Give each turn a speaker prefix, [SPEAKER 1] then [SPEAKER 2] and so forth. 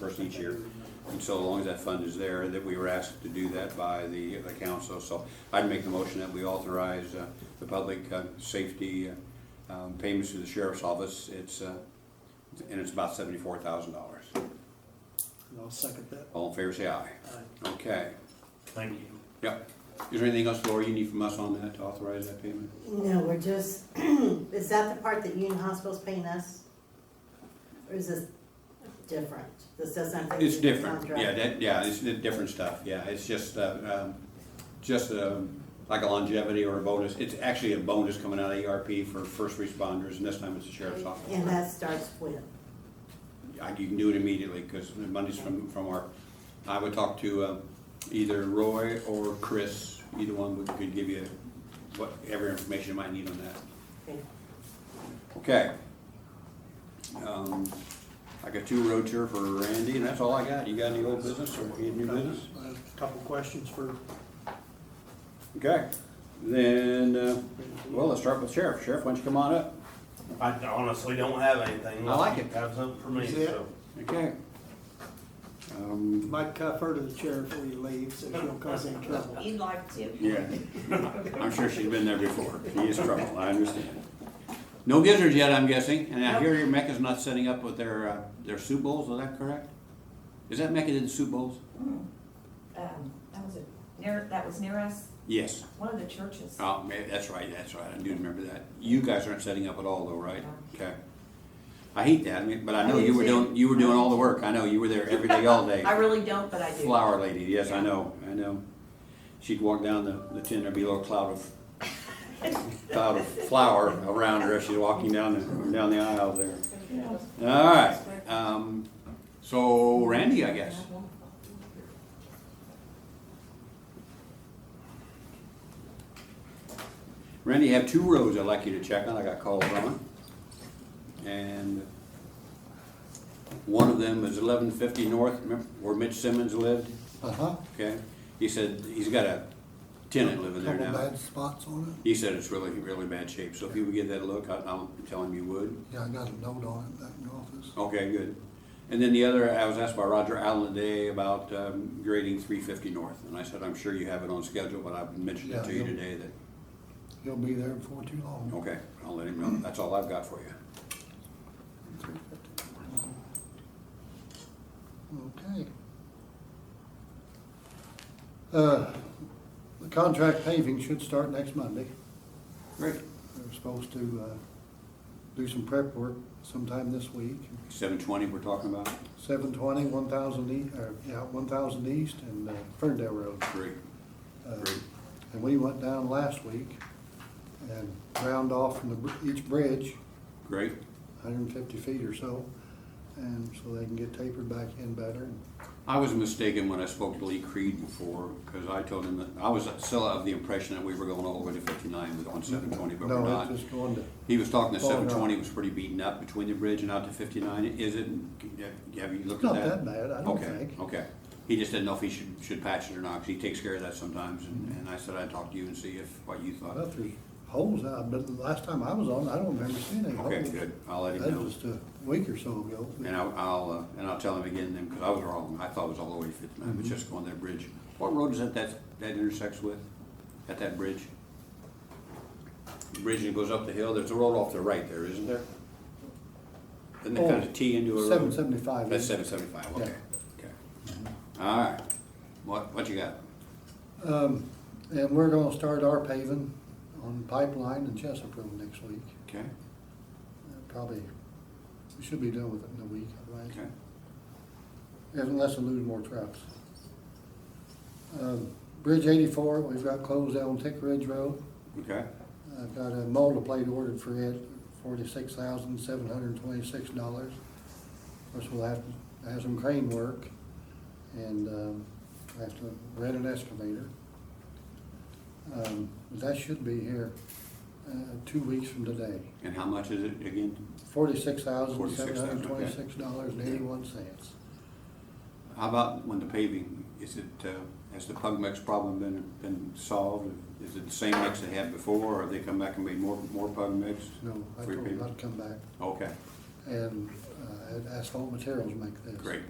[SPEAKER 1] first each year. And so long as that fund is there, that we were asked to do that by the, the council. So I'd make the motion that we authorize uh, the public uh, safety uh, um, payments to the sheriff's office. It's, uh, and it's about seventy-four thousand dollars.
[SPEAKER 2] And I'll second that.
[SPEAKER 1] All in favor, say aye.
[SPEAKER 2] Aye.
[SPEAKER 1] Okay,
[SPEAKER 3] Thank you.
[SPEAKER 1] yep. Is there anything else, Laura, you need from us on that to authorize that payment?
[SPEAKER 4] No, we're just, is that the part that Union Hospital's paying us? Or is this different? This doesn't have anything
[SPEAKER 1] It's
[SPEAKER 4] to do with
[SPEAKER 1] different,
[SPEAKER 4] contract?
[SPEAKER 1] yeah, that, yeah, it's di- different stuff, yeah, it's just, uh, um, just, um, like a longevity or a bonus, it's actually a bonus coming out of ERP for first responders, and this time it's the sheriff's
[SPEAKER 4] And
[SPEAKER 1] office.
[SPEAKER 4] that starts when?
[SPEAKER 1] I- You can do it immediately, because Mondays from, from our, I would talk to, um, either Roy or Chris, either one would, could give you what, every information you might need on that.
[SPEAKER 4] Okay.
[SPEAKER 1] Okay. Um, I got two road here for Randy, and that's all I got, you got any old business or any new business?
[SPEAKER 2] I have a Couple questions for,
[SPEAKER 1] Okay, then, uh, well, let's start with Sheriff. Sheriff, why don't you come on up?
[SPEAKER 3] I honestly don't have anything.
[SPEAKER 1] I like it.
[SPEAKER 3] Have something for me,
[SPEAKER 2] Is it?
[SPEAKER 3] so.
[SPEAKER 1] Okay. Um,
[SPEAKER 2] Mike Cuff, her to the chair before you leave, so she don't cause any trouble.
[SPEAKER 5] You'd like to.
[SPEAKER 1] yeah, I'm sure she's been there before. She is trouble, I understand. No gizzards yet, I'm guessing, and I hear your Mecca's not setting up with their, uh, their soup bowls, is that correct? Is that Mecca did the soup bowls?
[SPEAKER 5] Um, that was a, near, that was near us,
[SPEAKER 1] Yes.
[SPEAKER 5] one of the churches.
[SPEAKER 1] Oh, maybe, that's right, that's right, I do remember that. You guys aren't setting up at all though, right? Okay. I hate that, I mean, but I know you were doing, you were doing all the work. I know, you were there every day, all day.
[SPEAKER 5] I really don't, but I do.
[SPEAKER 1] Flower lady, yes, I know, I know. She'd walk down the, the tin, there'd be a little cloud of, cloud of flour around her as she's walking down the, down the aisle there.
[SPEAKER 5] Yeah.
[SPEAKER 1] All right, um, so Randy, I guess. Randy, you have two roads I'd like you to check on, I got called from it. And one of them is eleven fifty north, remember where Mitch Simmons lived?
[SPEAKER 6] Uh-huh,
[SPEAKER 1] Okay, he said, he's got a tenant living there
[SPEAKER 6] couple
[SPEAKER 1] now.
[SPEAKER 6] bad spots on
[SPEAKER 1] He said it's really, really bad shape, so if you would give that a look, I- I'll tell him you would.
[SPEAKER 6] it. Yeah, I got a note on it back in the office.
[SPEAKER 1] Okay, good. And then the other, I was asked by Roger Allen today about um, grading three fifty north, and I said, I'm sure you have it on schedule, but I've mentioned it
[SPEAKER 6] Yeah,
[SPEAKER 1] to you
[SPEAKER 6] he'll-
[SPEAKER 1] today that,
[SPEAKER 6] He'll be there before too long.
[SPEAKER 1] okay, I'll let him know, that's all I've got for you.
[SPEAKER 6] Okay. Uh, The contract paving should start next Monday.
[SPEAKER 1] Great.
[SPEAKER 6] They're supposed to uh, do some prep work sometime this week.
[SPEAKER 1] Seven twenty we're talking about?
[SPEAKER 6] Seven twenty, one thousand east, or, yeah, one thousand east and uh, Ferndale Road.
[SPEAKER 1] Great,
[SPEAKER 6] Uh,
[SPEAKER 1] great.
[SPEAKER 6] And we went down last week and ground off from the br- each bridge
[SPEAKER 1] Great,
[SPEAKER 6] hundred and fifty feet or so, and so they can get tapered back in better.
[SPEAKER 1] I was mistaken when I spoke to Lee Creed before, because I told him that, I was still of the impression that we were going all the way to fifty-nine with on seven twenty, but we're
[SPEAKER 6] No,
[SPEAKER 1] not.
[SPEAKER 6] it's just going to,
[SPEAKER 1] He was talking that
[SPEAKER 6] Oh, no.
[SPEAKER 1] seven twenty was pretty beaten up between the bridge and out to fifty-nine, is it? Have you
[SPEAKER 6] it's
[SPEAKER 1] looked at
[SPEAKER 6] not
[SPEAKER 1] that?
[SPEAKER 6] that bad, I don't
[SPEAKER 1] Okay,
[SPEAKER 6] think.
[SPEAKER 1] okay. He just didn't know if he should, should patch it or not, 'cause he takes care of that sometimes, and, and I said I'd talk to you and see if, what you
[SPEAKER 6] Well,
[SPEAKER 1] thought.
[SPEAKER 6] there's holes out, but the last time I was on, I don't remember seeing any holes.
[SPEAKER 1] Okay, good, I'll let
[SPEAKER 6] That
[SPEAKER 1] him know.
[SPEAKER 6] was just a week or so ago.
[SPEAKER 1] And I'll, I'll, uh, and I'll tell him again then, because I was wrong, I thought it was all the way to fifty-nine,
[SPEAKER 6] Mm-hmm.
[SPEAKER 1] but just going that bridge. What road is that, that, that intersects with, at that bridge? The Bridge that goes up the hill, there's a road off the right there, isn't there? Doesn't it kind
[SPEAKER 6] Oh,
[SPEAKER 1] of tee into a road?
[SPEAKER 6] Seven seventy-five.
[SPEAKER 1] That's seven seventy-five, okay, okay.
[SPEAKER 6] Mm-hmm.
[SPEAKER 1] All right, what, what you got?
[SPEAKER 6] Um, and we're gonna start our paving on Pipeline and Chesapeake Road next week.
[SPEAKER 1] Okay,
[SPEAKER 6] Uh, Probably, we should be done with it in a week, I think.
[SPEAKER 1] okay.
[SPEAKER 6] unless we lose more trucks. Um, Bridge eighty-four, we've got closed down Tick Ridge Road.
[SPEAKER 1] Okay,
[SPEAKER 6] I've got a molder plate ordered for it, forty-six thousand, seven hundred and twenty-six dollars. Of course, we'll have to have some crane work and, um, I have to rent an excavator. Um, that should be here, uh, two weeks from today.
[SPEAKER 1] and how much is it again?
[SPEAKER 6] Forty-six thousand, seven hundred and twenty-six dollars and eighty-one cents.
[SPEAKER 1] $46,726.81. How about when the paving, is it, uh, has the pug mix problem been, been solved? Is it the same mix they had before, or have they come back and made more, more pug mix?
[SPEAKER 6] No, I
[SPEAKER 1] Free
[SPEAKER 6] told them
[SPEAKER 1] paving.
[SPEAKER 6] not to come back.
[SPEAKER 1] Okay,
[SPEAKER 6] and uh, asphalt materials make this.
[SPEAKER 1] great,